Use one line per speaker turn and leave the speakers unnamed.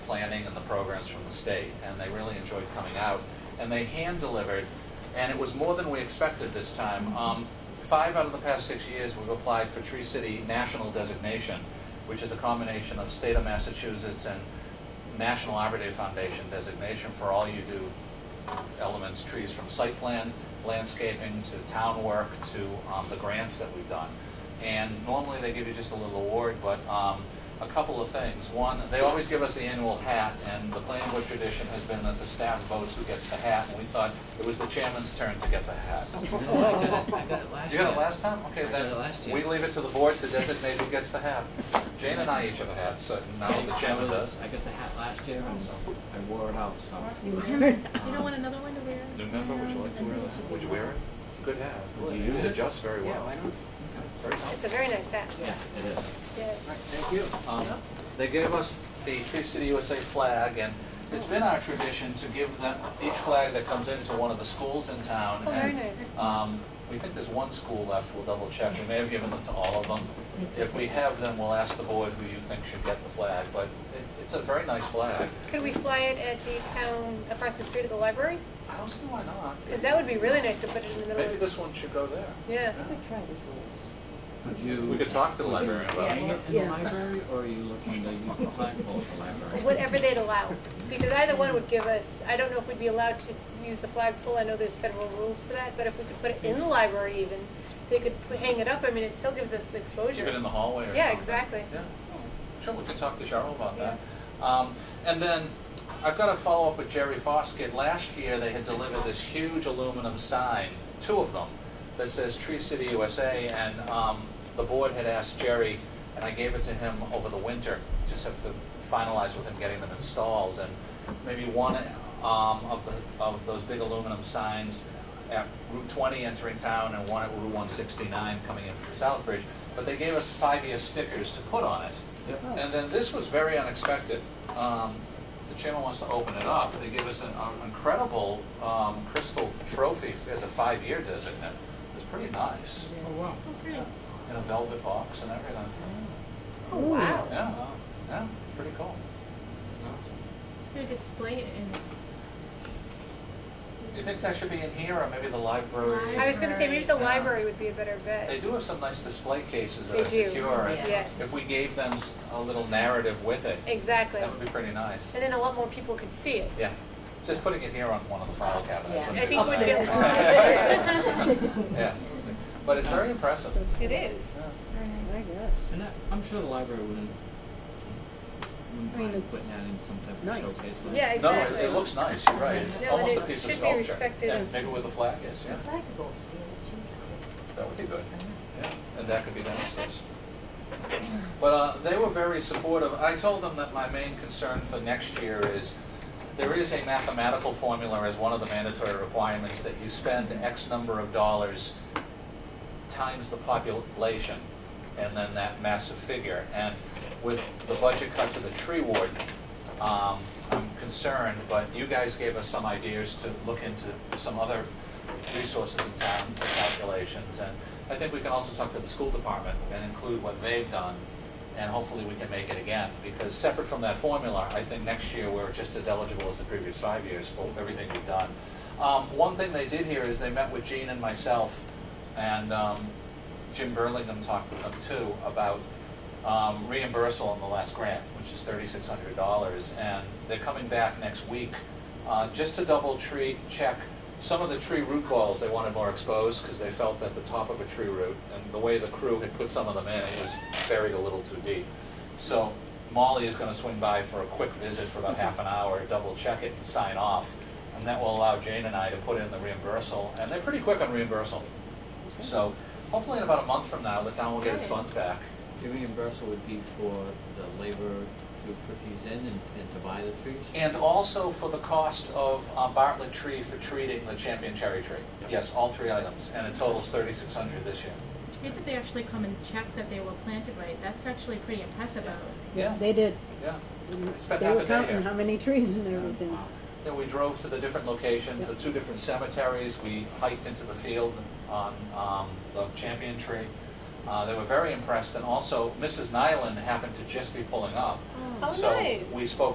training and the programs from the state, and they really enjoyed coming out. And they hand-delivered, and it was more than we expected this time. Um, Five out of the past six years, we've applied for Tree City National designation, which is a combination of state of Massachusetts and National Arbor Day Foundation designation for all you do elements, trees from site plan, landscaping, to town work, to um, the grants that we've done. And normally they give you just a little award, but um, a couple of things. One, they always give us the annual hat, and the planning board tradition has been that the staff votes who gets the hat, and we thought it was the chairman's turn to get the hat.
I got it
You got
last
it
year.
last time?
I
Okay,
got it last
then,
year.
we leave it to the board to designate who gets the hat. Jane and I each have a hat, so now the chairman does.
I got the hat last year and so I wore it out, so.
You don't want another one to wear?
New member, would you like to wear that? Would you wear it? It's a good hat.
Would you use
It
it?
adjusts very well. Very
It's
nice.
a very nice hat.
Yeah, it is.
Yeah.
Thank you.
Um, They gave us the Tree City USA flag, and it's been our tradition to give them each flag that comes into one of the schools in town.
Oh, very
and,
nice.
um, We think there's one school left, we'll double check, we may have given them to all of them. If we have them, we'll ask the board who you think should get the flag, but it- it's a very nice flag.
Could we fly it at the town, across the street of the library?
I don't see why not.
Because that would be really nice to put it in the middle
Maybe
of.
this one should go there.
Yeah.
Would you?
We could talk to the librarian about
Hang
it.
it in the library or are you looking to use the flagpole at the library?
Whatever they'd allow. Because either one would give us, I don't know if we'd be allowed to use the flagpole, I know there's federal rules for that, but if we could put it in the library even, they could pu- hang it up, I mean, it still gives us exposure.
Keep it in the hallway or something.
Yeah, exactly.
Yeah, sure, we could talk to Cheryl about that. Um, And then, I've got to follow up with Jerry Foskett. Last year, they had delivered this huge aluminum sign, two of them, that says Tree City USA, and um, the board had asked Jerry, and I gave it to him over the winter, just have to finalize with him getting them installed, and maybe one um, of the, of those big aluminum signs at Route 20 entering town and one at Route 169 coming in from Southbridge, but they gave us five-year stickers to put on it.
Yep.
And then this was very unexpected. Um, The chairman wants to open it up. They gave us an an incredible um, crystal trophy as a five-year designate. It was pretty nice,
Oh, wow.
in a velvet box and everything.
Oh, wow.
Yeah, yeah, pretty cool.
They're displaying it in,
You think that should be in here or maybe the library?
I was gonna say, maybe the
Yeah.
library would be a better bet.
They do have some nice display cases that
They
are
do,
secure. and
yes.
If we gave them s- a little narrative with it,
Exactly.
that would be pretty nice.
And then a lot more people could see it.
Yeah, just putting it here on one of the file cabinets.
Yeah.
would
I
be
think we'd get-
nice. Yeah, but it's very impressive.
It is.
Yeah.
I guess.
And that, I'm sure the library wouldn't, wouldn't
I mean,
mind
it's
putting that in some type of
nice.
showcase. like-
Yeah,
No,
Exactly.
it- it looks nice, you're right. It's
No, and
almost a
it
piece of
should be
sculpture.
respected
Yeah,
and-
Maybe with a flag is, yeah.
I could go upstairs, it's usually.
That would be good. Yeah, and that could be downstairs. But uh, they were very supportive. I told them that my main concern for next year is, there is a mathematical formula as one of the mandatory requirements that you spend X number of dollars times the population, and then that massive figure. And with the budget cut to the tree ward, um, I'm concerned, but you guys gave us some ideas to look into some other resources in town for calculations. And I think we can also talk to the school department and include what they've done, and hopefully we can make it again. Because separate from that formula, I think next year we're just as eligible as the previous five years for everything we've done. Um, One thing they did here is they met with Gene and myself, and um, Jim Burlingham talked with them too about um, reimbursal on the last grant, which is thirty-six hundred dollars, and they're coming back next week uh, just to double tree, check some of the tree root balls they wanted more exposed, because they felt that the top of a tree root, and the way the crew had put some of them in, it was buried a little too deep. So Molly is gonna swing by for a quick visit for about half an hour, double check it and sign off, and that will allow Jane and I to put in the reimbursal, and they're pretty quick on reimbursal. So hopefully in about a month from now, the town will get its funds back.
The reimbursement would be for the labor to put these in and, and to buy the trees?
And also for the cost of uh, Bartlett tree for treating the champion cherry tree. Yes, all three items, and it totals thirty-six hundred this year.
it's good that they actually come and check that they were planted right, that's actually pretty impressive of them.
Yeah,
They did.
yeah. Spent
They
half
were
a day
counting
here.
how many trees and everything.
Oh. Then we drove to the different locations, the two different cemeteries, we hiked into the field on um, the champion tree. Uh, They were very impressed, and also Mrs. Nyland happened to just be pulling up.
Oh,
So
nice.
we spoke